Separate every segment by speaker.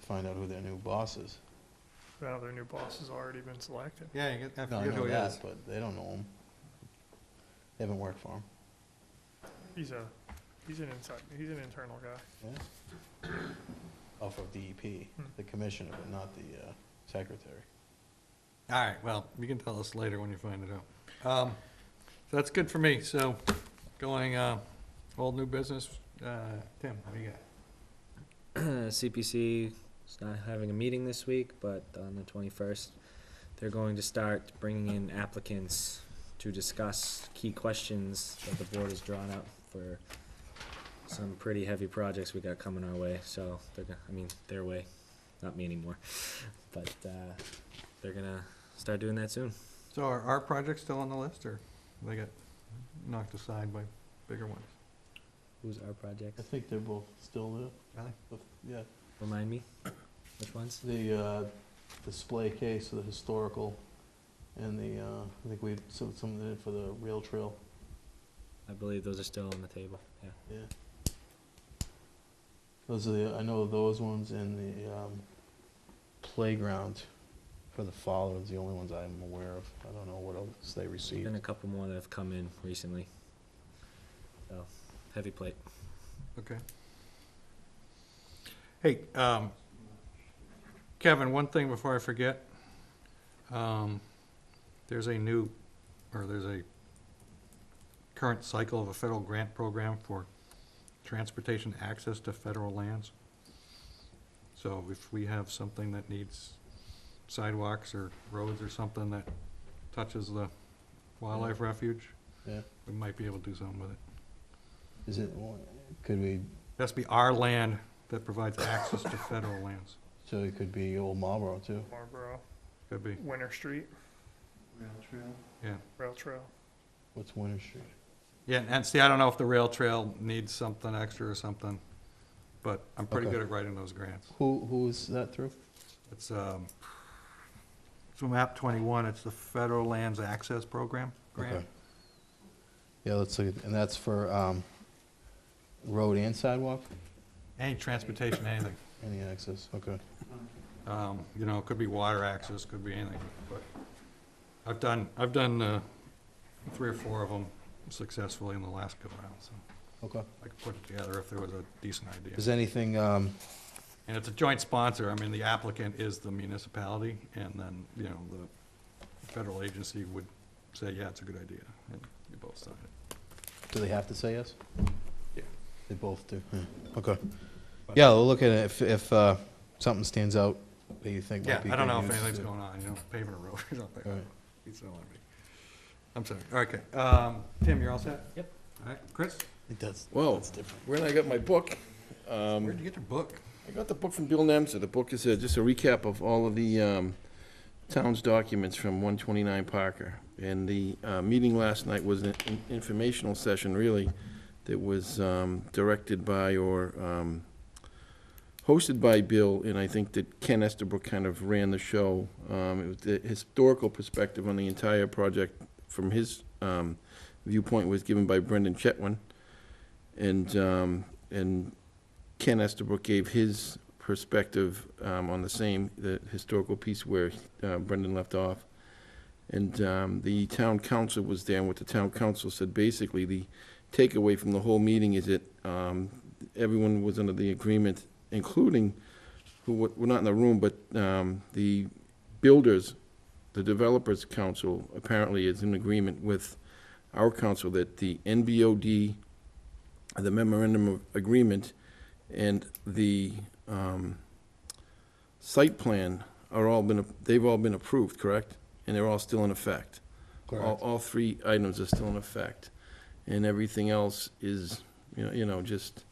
Speaker 1: find out who their new boss is.
Speaker 2: Now their new boss has already been selected.
Speaker 3: Yeah, you get, I
Speaker 1: No, I
Speaker 3: forget
Speaker 1: know
Speaker 3: who he
Speaker 1: that,
Speaker 3: is.
Speaker 1: but they don't know him. They haven't worked for him.
Speaker 2: He's a, he's an inside, he's an internal guy.
Speaker 1: Yeah. Off of DEP,
Speaker 2: Hmm.
Speaker 1: E the commissioner, but not the uh, secretary.
Speaker 3: All right, well, you can tell us later when you find it out. Um, So that's good for me, so going, uh, old new business, uh, Tim, what do you got?
Speaker 4: CPC is not having a meeting this week, but on the twenty-first, they're going to start bringing in applicants to discuss key questions that the board has drawn up for some pretty heavy projects we got coming our way, so they're gonna, I mean, their way, not me anymore, but, uh, they're gonna start doing that soon.
Speaker 3: So are our projects still on the list, or they got knocked aside by bigger ones?
Speaker 4: Who's our project?
Speaker 1: I think they're both still
Speaker 3: Really?
Speaker 1: there. Yeah,
Speaker 4: Remind me, which ones?
Speaker 1: the uh, display case of the historical and the, uh, I think we, some, some did for the rail trail,
Speaker 4: I believe those are still on the table, yeah.
Speaker 1: yeah. Those are the, I know those ones and the um, playground for the fall is the only ones I'm aware of. I don't know what else they received.
Speaker 4: Been a couple more that have come in recently. So, heavy plate.
Speaker 3: Okay. Hey, um, Kevin, one thing before I forget. Um, There's a new, or there's a current cycle of a federal grant program for transportation access to federal lands. So if we have something that needs sidewalks or roads or something that touches the wildlife refuge,
Speaker 1: Yeah.
Speaker 3: we might be able to do something with it.
Speaker 1: Is it, could we,
Speaker 3: It has to be our land that provides access to federal lands.
Speaker 1: so it could be Old Marlboro too?
Speaker 2: Marlboro,
Speaker 3: Could be,
Speaker 2: Winter Street,
Speaker 3: yeah.
Speaker 2: Rail Trail.
Speaker 1: What's Winter Street?
Speaker 3: Yeah, and see, I don't know if the rail trail needs something extra or something, but I'm pretty
Speaker 1: Okay.
Speaker 3: good at writing those grants.
Speaker 1: Who, who is that through?
Speaker 3: It's, um, it's from map twenty-one, it's the Federal Lands Access Program grant.
Speaker 1: Okay. Yeah, let's look, at- and that's for, um, road and sidewalk,
Speaker 3: Any transportation, anything.
Speaker 1: any access, okay.
Speaker 3: Um, you know, it could be water access, could be anything, but I've done, I've done, uh, three or four of them successfully in the last go round, so
Speaker 1: Okay.
Speaker 3: I could put it together if there was a decent idea.
Speaker 1: Is anything, um,
Speaker 3: And it's a joint sponsor, I mean, the applicant is the municipality, and then, you know, the federal agency would say, yeah, it's a good idea, and you both sign it.
Speaker 1: do they have to say yes?
Speaker 3: Yeah.
Speaker 1: They both do, Hmm, okay. Yeah, we'll look at it, if, if, uh, something stands out that you think
Speaker 3: Yeah,
Speaker 1: might be.
Speaker 3: I don't
Speaker 1: good
Speaker 3: know if
Speaker 1: use,
Speaker 3: anything's
Speaker 1: yeah.
Speaker 3: going on, you know, paving a road or something.
Speaker 1: All right.
Speaker 3: He's not letting me. I'm sorry, okay, um, Tim, you're all set?
Speaker 4: Yep.
Speaker 3: All right, Chris,
Speaker 1: I think that's,
Speaker 5: Well-
Speaker 1: that's different.
Speaker 5: When I got my book,
Speaker 3: where'd
Speaker 5: um,
Speaker 3: you get your book?
Speaker 5: I got the book from Bill Nemser. The book is uh, just a recap of all of the um, town's documents from 129 Parker. And the uh, meeting last night was an in- informational session, really, that was um, directed by or um, hosted by Bill, and I think that Ken Estabrook kind of ran the show. Um, It was the historical perspective on the entire project from his um, viewpoint was given by Brendan Chetwin. And, um, and Ken Estabrook gave his perspective um, on the same, the historical piece where uh, Brendan left off. And um, the town council was there, and what the town council said, basically, the takeaway from the whole meeting is that um, everyone was under the agreement, including, who wa- were not in the room, but um, the builders, the developers council apparently is in agreement with our council that the NBOD, the memorandum of agreement, and the um, site plan are all been, they've all been approved, correct? And they're all still in effect. All, all three items are still in effect. And everything else is, you know, you know, just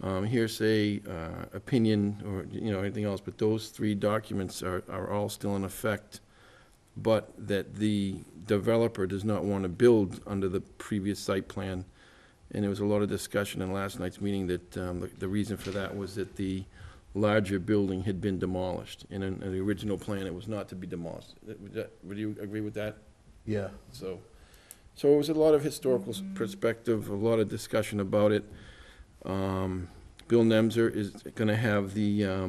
Speaker 5: um, hearsay, uh, opinion, or, you know, anything else. But those three documents are, are all still in effect, but that the developer does not want to build under the previous site plan and there was a lot of discussion in last night's meeting that um, the- the reason for that was that the larger building had been demolished. And in in the original plan, it was not to be demolished. That- Would that- would you agree with that?
Speaker 1: Yeah,
Speaker 5: So, so it was a lot of historical s- perspective, a lot of discussion about it. Um, Bill Nemser is going to have the um,